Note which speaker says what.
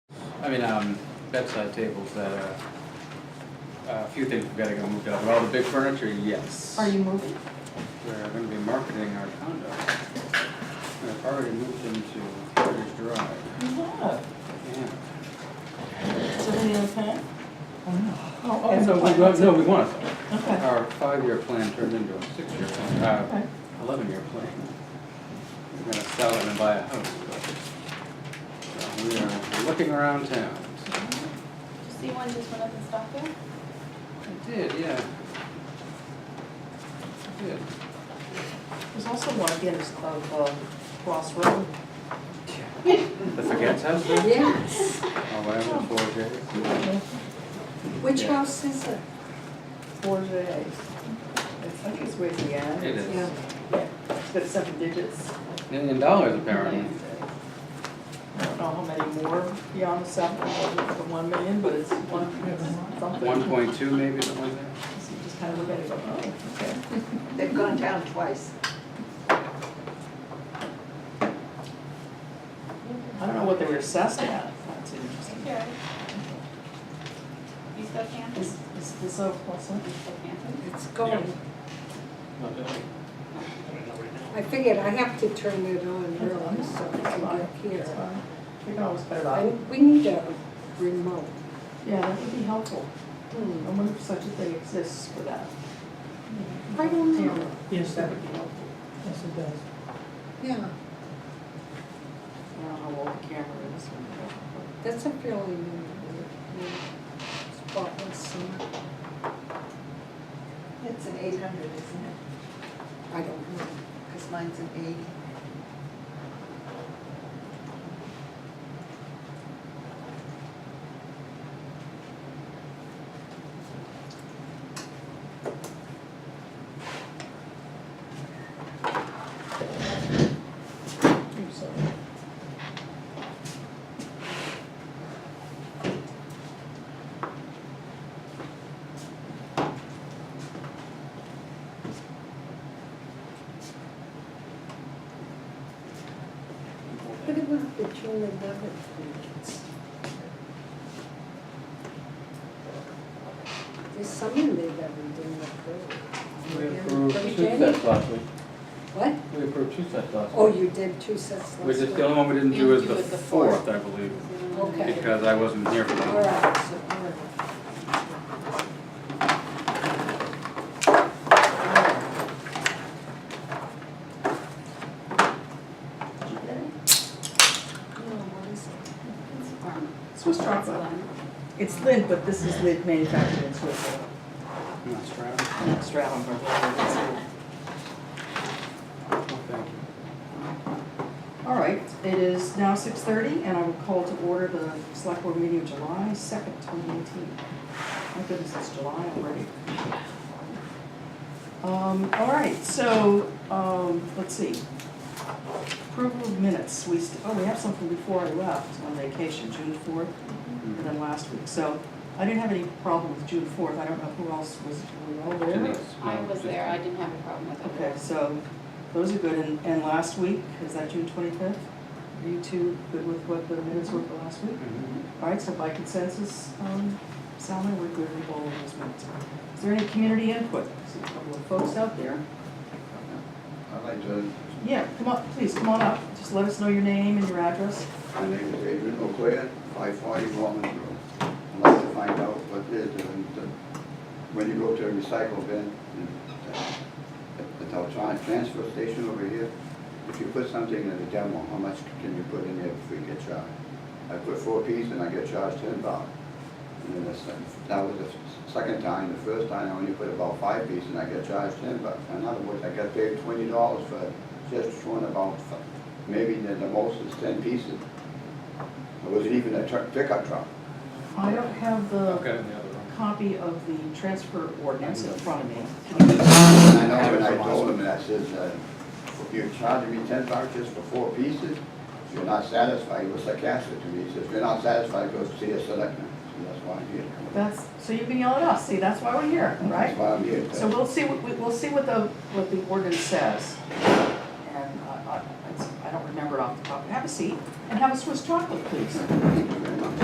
Speaker 1: I mean, um, bedside tables that are, a few things we've gotta go move out. Well, the big furniture, yes.
Speaker 2: Are you moving?
Speaker 1: We're gonna be marketing our condo. We've already moved into Heritage Drive,
Speaker 3: Yeah.
Speaker 1: yeah.
Speaker 3: So they have time? Oh,
Speaker 1: And
Speaker 3: okay.
Speaker 1: so we, want- no, we want it.
Speaker 3: Okay.
Speaker 1: Our five-year plan turned into a six-year plan, uh,
Speaker 3: Okay.
Speaker 1: eleven-year plan. We're gonna sell it and buy a house. but- So we are looking around town.
Speaker 4: you see one just went up in Stockton?
Speaker 1: I did, yeah. I did.
Speaker 3: There's also one at the end of uh, Cross Road.
Speaker 1: That's the cat's house though?
Speaker 2: Yes.
Speaker 1: Oh, I have four J's.
Speaker 2: Which
Speaker 1: Yeah.
Speaker 2: house is it?
Speaker 3: Four J's. It's, I think it's way at the end.
Speaker 1: It is.
Speaker 2: Yeah.
Speaker 3: Yeah, it's got seven digits.
Speaker 1: Million dollars apparently.
Speaker 3: I don't know how many more beyond the seven, or the one million, but it's one, it's something.
Speaker 1: One point two maybe, something like
Speaker 3: So
Speaker 1: that.
Speaker 3: you just kind of look at it, and go, oh, okay.
Speaker 2: They've gone down twice.
Speaker 3: I don't know what they were assessed at. That's interesting.
Speaker 4: Sure. You still can?
Speaker 3: Is, is this a, what's that?
Speaker 4: You still can?
Speaker 2: It's gone. I figured I have to turn it on early so I can
Speaker 3: Fine.
Speaker 2: get here.
Speaker 3: It's fine. We can always put it
Speaker 2: I-
Speaker 3: on.
Speaker 2: We need a remote.
Speaker 3: Yeah, that would be helpful. I
Speaker 2: Hmm.
Speaker 3: wonder if such a thing exists for that.
Speaker 2: I don't know.
Speaker 5: Yes,
Speaker 3: That
Speaker 5: it-
Speaker 3: would be helpful.
Speaker 5: yes, it does.
Speaker 2: Yeah,
Speaker 3: I don't know how old the camera is. or-
Speaker 2: that's a fairly new, new spotless summer.
Speaker 6: It's an eight hundred, isn't it?
Speaker 2: I don't know.
Speaker 6: Because mine's an eighty.
Speaker 3: I'm sorry.
Speaker 2: What about the June eleventh meetings? There's some in there that we didn't approve.
Speaker 1: We approved two
Speaker 2: Jenny?
Speaker 1: sets last week.
Speaker 2: What?
Speaker 1: We approved two sets last
Speaker 2: Oh,
Speaker 1: week.
Speaker 2: you did two sets last
Speaker 1: We
Speaker 2: week?
Speaker 1: just, the only one we didn't do is the fourth, I believe,
Speaker 2: Okay.
Speaker 1: because I wasn't here for
Speaker 2: All
Speaker 1: that.
Speaker 2: right, so, all right. No, what is it?
Speaker 4: It's warm.
Speaker 3: Swiss chocolate. It's Lid, but this is Lid manufactured in Switzerland.
Speaker 1: No, it's Stroud.
Speaker 3: Not Stratton,
Speaker 1: Oh, thank you.
Speaker 3: All right, it is now six thirty, and I will call to order the select board meeting of July second, twenty eighteen. My goodness, it's July already. Um, all right, so, um, let's see. Approval of minutes, we, st- oh, we have something before I left on vacation, June fourth, and then last week, so I didn't have any problem with June fourth, I don't know who else was, were you all there?
Speaker 1: Denise,
Speaker 4: I
Speaker 1: no,
Speaker 4: was
Speaker 1: just-
Speaker 4: there, I didn't have a problem with it.
Speaker 3: Okay, so those are good, and, and last week, is that June twenty-fifth? Are you two good with what the minutes were for last week?
Speaker 1: Mhm.
Speaker 3: All right, so by consensus, um, Salma, we're good with all of those minutes. Is there any community input? There's a couple of folks out there.
Speaker 7: I'd like to,
Speaker 3: Yeah, come on, please, come on up, just let us know your name and your address.
Speaker 7: my name is Adrian O'Clair, five forty Walnut Road. I'd like to find out what it is, and uh, when you go to a recycle bin, and, uh, at the Teltron transfer station over here, if you put something in the demo, how much can you put in there before you get charged? I put four pieces and I get charged ten dollars. And then the second, that was the s- second time, the first time I only put about five pieces and I get charged ten bucks. In other words, I got paid twenty dollars for just one about, f- maybe the the most is ten pieces. It wasn't even a truck, pickup truck.
Speaker 3: I don't have
Speaker 1: I've got
Speaker 3: the
Speaker 1: it in the other room.
Speaker 3: copy of the transfer ordinance in front of me.
Speaker 7: And I know when I told him, and I says, uh, you're charging me ten bucks just for four pieces? If you're not satisfied, he was sarcastic to me, he says, if you're not satisfied, go see a selectman. So that's why I'm here.
Speaker 3: That's, so you can yell at us, see, that's why we're here, right?
Speaker 7: That's why I'm here.
Speaker 3: So we'll see, what- we- we'll see what the, what the ordinance says. uh, And I, I, it's- I don't remember off the top, have a seat and have a Swiss chocolate, please.